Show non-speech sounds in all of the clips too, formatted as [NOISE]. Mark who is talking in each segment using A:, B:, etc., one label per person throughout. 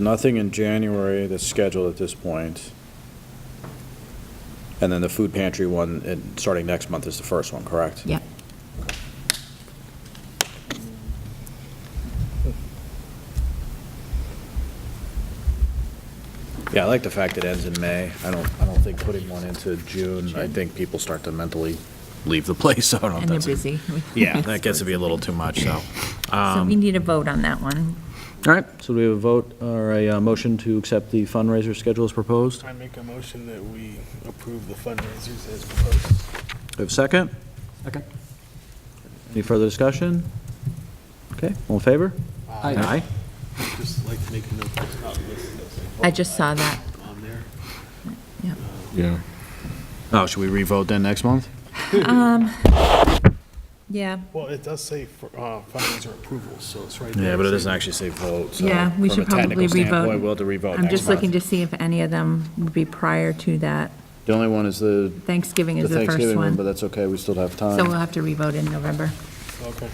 A: Nothing in January that's scheduled at this point. And then the food pantry one, and starting next month is the first one, correct?
B: Yep.
A: Yeah, I like the fact it ends in May. I don't, I don't think putting one into June, I
B: Sure.
A: think people start to mentally leave the [LAUGHS] place, so I don't know if
B: And they're
A: that's.
B: busy.
A: [LAUGHS]
B: [LAUGHS]
A: Yeah, that gets to be a little too much, so. um,
B: So we need a vote on that one.
C: All right, so do we have a vote or a uh, motion to accept the fundraiser schedule as proposed?
D: I make a motion that we approve the fundraisers as proposed.
C: Do we have a second?
E: Second.
C: Any further discussion? Okay, all in favor?
E: Aye.
D: Just like to make a note that it's not listed
B: I just saw that.
D: on there.
B: Yeah.
A: Yeah. Oh, should we re-vote then next month?
B: Um, Yeah,
D: Well, it does say for, uh, fundraiser approvals, so it's right there.
A: Yeah, but it doesn't actually say vote, so.
B: yeah, we should probably
A: From a technical standpoint,
B: revote.
A: we'll have to re-vote next month.
B: I'm just looking to see if any of them would be prior to that.
A: The only one is the
B: Thanksgiving
A: the
B: is the first
A: Thanksgiving one, but uh,
B: one.
A: that's okay, we still have
B: So uh, we'll
A: time.
B: have to revote in November.
D: Okay.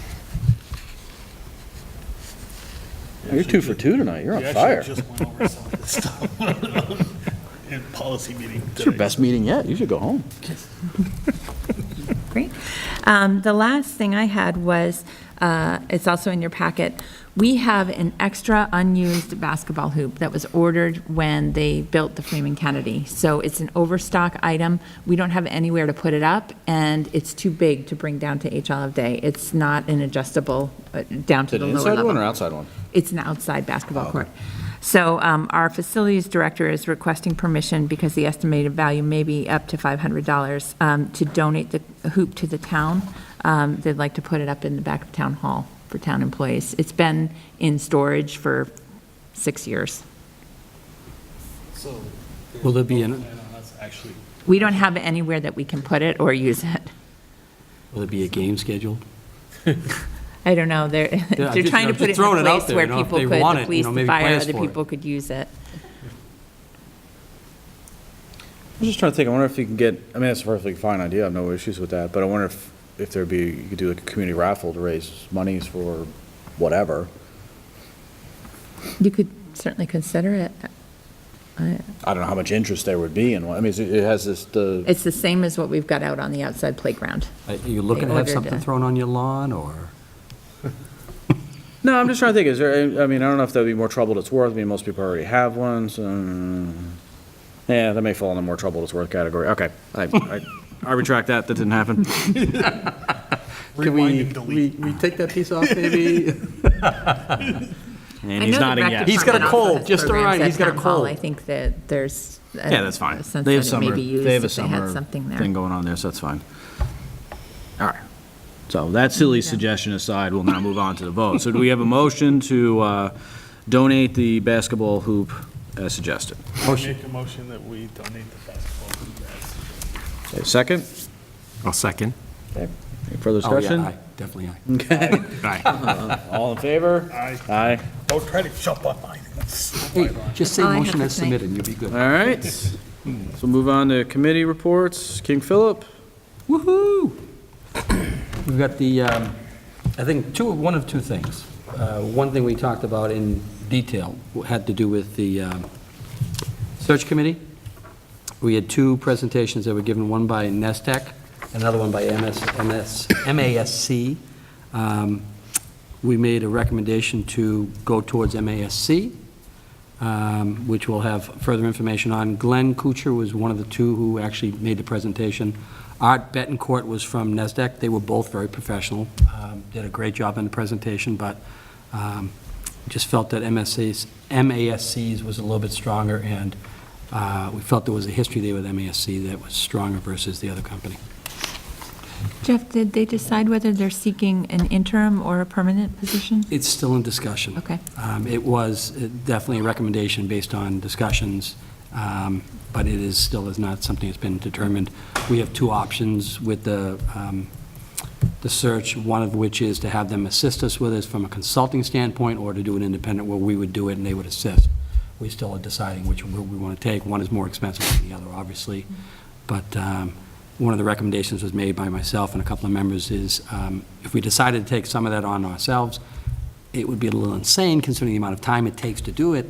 C: You're two for two tonight, you're
D: We
C: on
D: actually
C: fire.
D: just went over some of this stuff [LAUGHS] in policy meeting
C: It's your
D: today.
C: best meeting yet, you should go home.
B: Great. Um, The last thing I had was, uh, it's also in your packet, we have an extra unused basketball hoop that was ordered when they built the Freeman Kennedy. So it's an overstock item. We don't have anywhere to put it up, and it's too big to bring down to HL of Day. It's not an adjustable, uh, down to the lower level.
A: outside one?
B: It's an outside basketball
E: Oh.
B: court. So um, our facilities director is requesting permission because the estimated value may be up to $500 um, to donate the hoop to the town. Um, They'd like to put it up in the back of town hall for town employees. It's been in storage for six years.
D: So.
E: Will there be an-
D: no plan on us Actually,
B: We don't have anywhere that we can put it or use it.
E: Will there be a game scheduled?
B: I don't know, they're,
E: I'm
B: [LAUGHS] they're
E: just-
B: trying to
E: I'm
B: put it
E: just
B: in
E: throwing
B: a
E: it out
B: place
E: there,
B: where
E: you know, if
B: people
E: they
B: could,
E: want it,
B: the police,
E: you know,
B: the
E: maybe
B: fire,
E: plans
B: other
E: for it.
B: people could use it.
A: I'm just trying to think, I wonder if you can get, I mean, that's a perfectly fine idea, I have no issues with that, but I wonder if, if there'd be, you could do like a community raffle to raise monies for whatever.
B: You could certainly consider it.
A: I don't know how much interest there would be in one, I mean, it's- it has this, the,
B: It's the same as what we've got out on the outside playground.
E: Are Uh, you looking to have
B: ordered
E: something
B: a-
E: thrown on your lawn, or?
A: no, I'm just trying to think, is there, I mean, I don't know if that'd be more trouble than it's worth, I mean, most people already have one, so. mm. Yeah, that may fall in the more trouble than it's worth category, okay, [LAUGHS] I, I, I retract that, that didn't
B: [LAUGHS]
A: happen.
E: Can we-
D: rewind and delete.
E: We we take that piece off, maybe?
A: And
B: I
A: he's
B: know the
A: nodding
B: rec
A: yes.
E: He's got a
B: department also
E: cold,
B: has
E: just all
B: programs
E: right,
B: at
E: he's got a
B: town hall.
E: cold.
B: I think that there's. a-
A: Yeah, that's fine.
B: a sense
A: They have
B: that it may
A: summer,
B: be used
A: they have a
B: if had
A: summer
B: something there.
A: thing going on there, so that's fine. All right. So that silly suggestion aside, we'll now move on to the vote. So do we have a motion to uh, donate the basketball hoop as suggested?
E: [LAUGHS] Motion.
D: Make a motion that we donate the basketball to the
A: Is there a Second?
E: I'll second.
A: Any further
E: Oh, yeah,
A: discussion?
E: aye, definitely aye.
A: All in favor?
D: Aye.
A: Aye.
D: Don't try to jump on mine.
E: Hey, just say
B: Oh, I have
E: motion
B: to
E: as
B: think.
E: submitted, and you'll be good.
A: All right. So we'll move on to committee reports. King Philip?
E: Woo-hoo! [CLEARS THROAT] We've got the, um, I think, two, one of two things. Uh, One thing we talked about in detail had to do with the um, search committee. We had two presentations that were given, one by Nestec, another one by MS MS MASC. Um, We made a recommendation to go towards MASC, um, which we'll have further information on. Glenn Kuchar was one of the two who actually made the presentation. Art Betancourt was from NASDAQ. They were both very professional, um, did a great job in the presentation, but um, just felt that MSC's, MASC's was a little bit stronger, and uh, we felt there was a history there with MASC that was stronger versus the other company.
B: Jeff, did they decide whether they're seeking an interim or a permanent position?
E: It's still in discussion.
B: Okay.
E: Um, It was uh, definitely a recommendation based on discussions, um, but it is, still is not something that's been determined. We have two options with the, um, the search, one of which is to have them assist us with this from a consulting standpoint, or to do an independent where we would do it and they would assist. We still are deciding which route we want to take. One is more expensive than the other, obviously. But um, one of the recommendations was made by myself and a couple of members is, um, if we decided to take some of that on ourselves, it would be a little insane considering the amount of time it takes to do it,